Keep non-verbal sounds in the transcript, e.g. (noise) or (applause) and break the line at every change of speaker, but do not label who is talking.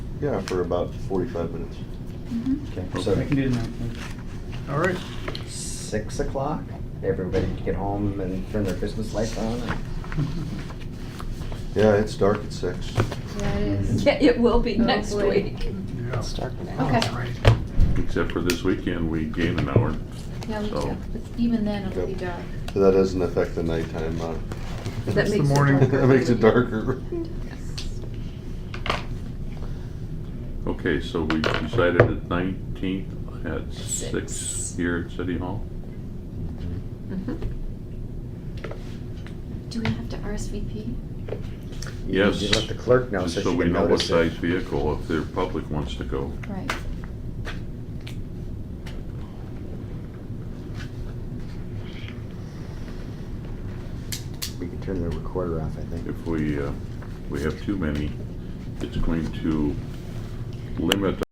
Yeah, for about forty-five minutes.
Mm-hmm.
Okay,
I
so
can do the nineteenth.
All right.
six o'clock, everybody can get home and turn their Christmas lights on. and-
Yeah, it's dark at six.
Yeah, it is.
Yeah, it will be next
Hopefully.
week.
Yeah.
It's dark now.
Okay.
All right.
Except for this weekend, we gained an hour.
Yeah, we
So-
do. But even then, it'll be dark.
So that doesn't affect the nighttime, uh,
That
It's the
makes it
morning.
(laughs)
darker.
that makes it darker.
Okay, so we decided the nineteenth at six
Six.
here at City Hall?
Mhm.
Do we have to RSVP?
You-
Yes.
You let the clerk know
Just
so
So
she
we
can
know what
notice
size
it.
vehicle, if the public wants to go.
Right.
We can turn the recorder off, I think.
If we, uh, we have too many, it's going to limit